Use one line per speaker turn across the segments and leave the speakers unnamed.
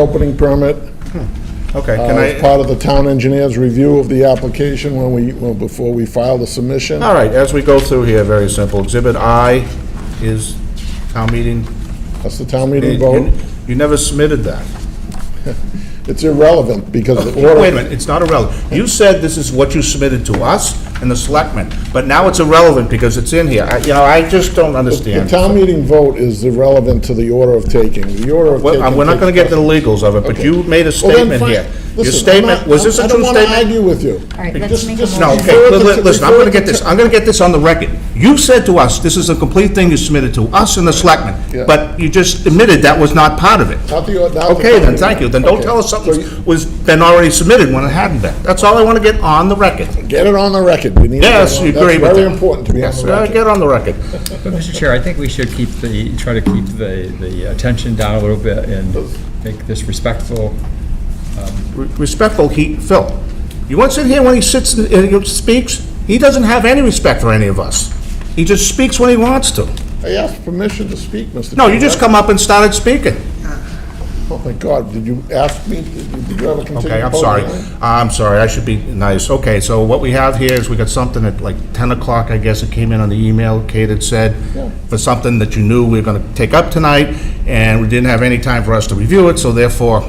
opening permit
Okay,
uh,
can
as
I,
part of the town engineer's review of the application when we, well, before we file the submission.
all right, as we go through here, very simple. Exhibit I is town meeting.
That's the town meeting
You
vote.
you never submitted that.
It's irrelevant because the order.
Wait a minute, it's not irrelevant. You said this is what you submitted to us and the selectmen, but now it's irrelevant because it's in here. I- You know, I just don't
The
understand.
town meeting vote is irrelevant to the order of taking. The order of
Well,
taking.
uh, We're not gonna get to the
takes-
legals of it, but
Okay.
you made a
Well, then
statement
fine.
here. Your
Listen, I'm
statement,
not-
was this a
I
true
don't want to
statement?
argue with you.
All right, let's
Just-
make a
just-
No,
motion.
okay,
refer
li-
to-
li- listen, I'm gonna
refer
get
to-
this, I'm gonna get this on the record. You said to us, this is a complete thing you submitted to us and the
Yeah.
selectmen, but you just admitted that was not part of it.
Not the or- not the
Okay, then,
town
thank you,
meeting.
then don't
Okay.
tell us
So
something
you-
was, been already submitted when it hadn't been. That's all I wanna get on the record.
Get it on the record. We need. to get
Yes,
it on-
you agree with
That's very
that.
important to be on
Yes,
the
uh,
record.
get on the record.
Mr. Chair, I think we should keep the, try to keep the, the attention down a little bit and make this respectful.
Re- Respectful, he, Phil, you want to sit here when he sits and and he speaks? He doesn't have any respect for any of us. He just speaks when he wants to.
I asked permission to speak, Mr.
No, you
Chairman.
just come up and started speaking.
Oh, my God, did you ask me? Did did you have a continued?
Okay, I'm
public
sorry.
hearing?
I'm sorry, I should be nice. Okay, so what we have here is we got something at like 10 o'clock, I guess, it came in on the email, Kate had said,
Yeah.
for something that you knew we were going to take up tonight, and we didn't have any time for us to review it, so therefore,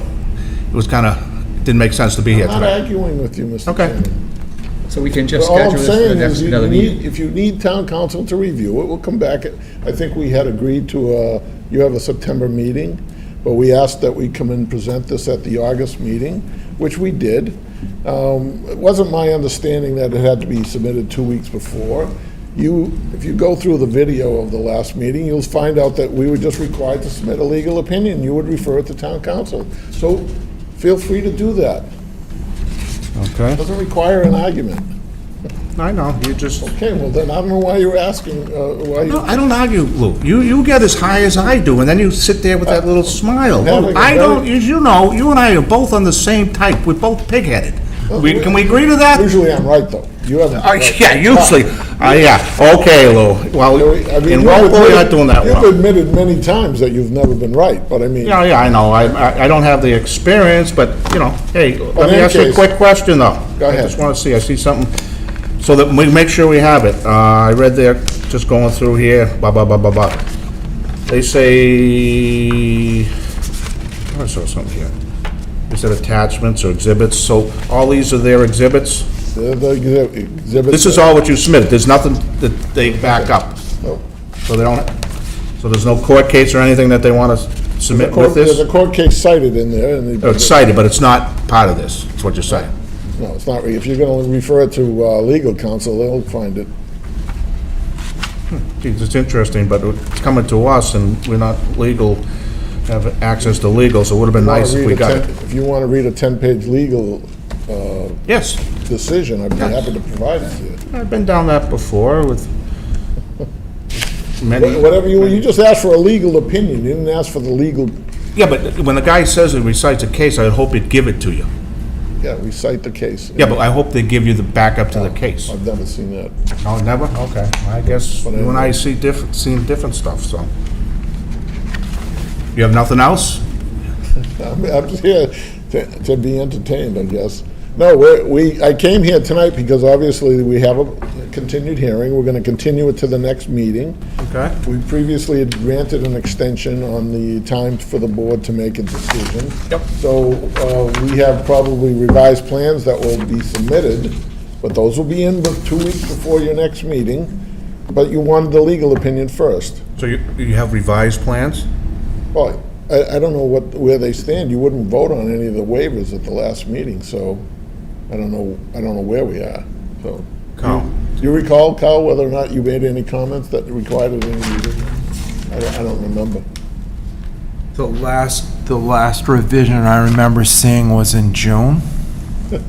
it was kind of, didn't make sense to be here
I'm not
tonight.
arguing with you, Mr.
Okay.
Chairman.
So we can just
All
schedule
I'm
this for the
saying
next,
is, you
another
need,
meeting.
if you need town council to review it, we'll come back. I think we had agreed to, uh, you have a September meeting, but we asked that we come and present this at the August meeting, which we did. Um, It wasn't my understanding that it had to be submitted two weeks before. You, if you go through the video of the last meeting, you'll find out that we were just required to submit a legal opinion. You would refer it to town council. So feel free to do that.
Okay.
Doesn't require an argument.
I know, you just,
Okay, well then, I don't know why you're asking, uh, why
No,
you...
I don't argue, Lou. You, you get as high as I do, and then you sit there with that little smile. Lou, I don't, as you know, you and I are both on the same type. We're both pig-headed. We- Can we agree to that?
Usually I'm right, though. You haven't...
Uh, Yeah, usually. Uh, yeah, okay, Lou. Well,
I mean,
in
you've
Walpole, you're not
admitted-
doing that
You've
well.
admitted many times that you've never been right, but I mean,
Yeah, yeah, I know. I, I- I don't have the experience, but, you know, hey, let
any
me ask you a
case-
quick question, though.
Go
I
ahead.
just want to see, I see something, so that we make sure we have it. Uh, I read there, just going through here, blah, blah, blah, blah, blah. They say, I saw something here. They said attachments or exhibits, so all these are their exhibits?
the the exhi- exhibit...
This is all what you submitted, there's nothing that they back up,
No.
so they don't, so there's no court case or anything that they want to submit
Court-
with
There's a
this?
court case cited in there, and... they-
Oh, It's cited, but it's not part of this, is what you're saying.
No, it's not, re- if you're going to refer it to uh, legal counsel, they'll find it.
Geez, It's interesting, but it's coming to us, and we're not legal, have access to legal, so it would have been
Wanna
nice if
read
we
a
got
10
it.
If you want to read a 10-page legal uh,
Yes,
decision, I'd be happy to provide it to you.
I've been down that before with many...
Whatever you, you just asked for a legal opinion, you didn't ask for the legal,
Yeah, but when the guy says and recites a case, I hope he'd give it to you.
yeah, we cite the case.
Yeah, but I hope they give you the backup to the case.
I've never seen that.
Oh, never? Okay, I guess you and I see different, seen different stuff, so. You have nothing else?
I'm, I'm just here to, to be entertained, I guess. No, we, we, I came here tonight because obviously we have a continued hearing. We're gonna continue it to the next meeting.
Okay.
We previously had granted an extension on the time for the board to make a decision.
Yep.
So, uh, we have probably revised plans that will be submitted, but those will be in the two weeks before your next meeting. But you wanted the legal opinion first.
So you, you have revised plans?
Well, I, I don't know what, where they stand. You wouldn't vote on any of the waivers at the last meeting, so I don't know, I don't know where we are, so.
Carl.
Do you recall, Carl, whether or not you made any comments that required any revision? I don't, I don't remember.
The last, the last revision I remember seeing was in June.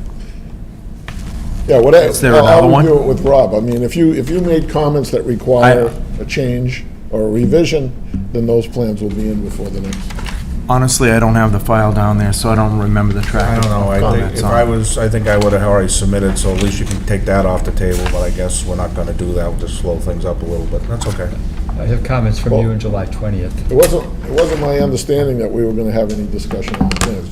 Yeah, whatever.
Is there another one?
I'll review it with Rob. I mean, if you, if you made comments that require a change or a revision, then those plans will be in before the next.
Honestly, I don't have the file down there, so I don't remember the track.
I don't know,
of
I think,
comments
if
on
I
it.
was, I think I would have already submitted, so at least you can take that off the table, but I guess we're not gonna do that, we'll just slow things up a little bit, that's okay.
I have comments from you on July 20th.
It wasn't, it wasn't my understanding that we were going to have any discussion on the plans.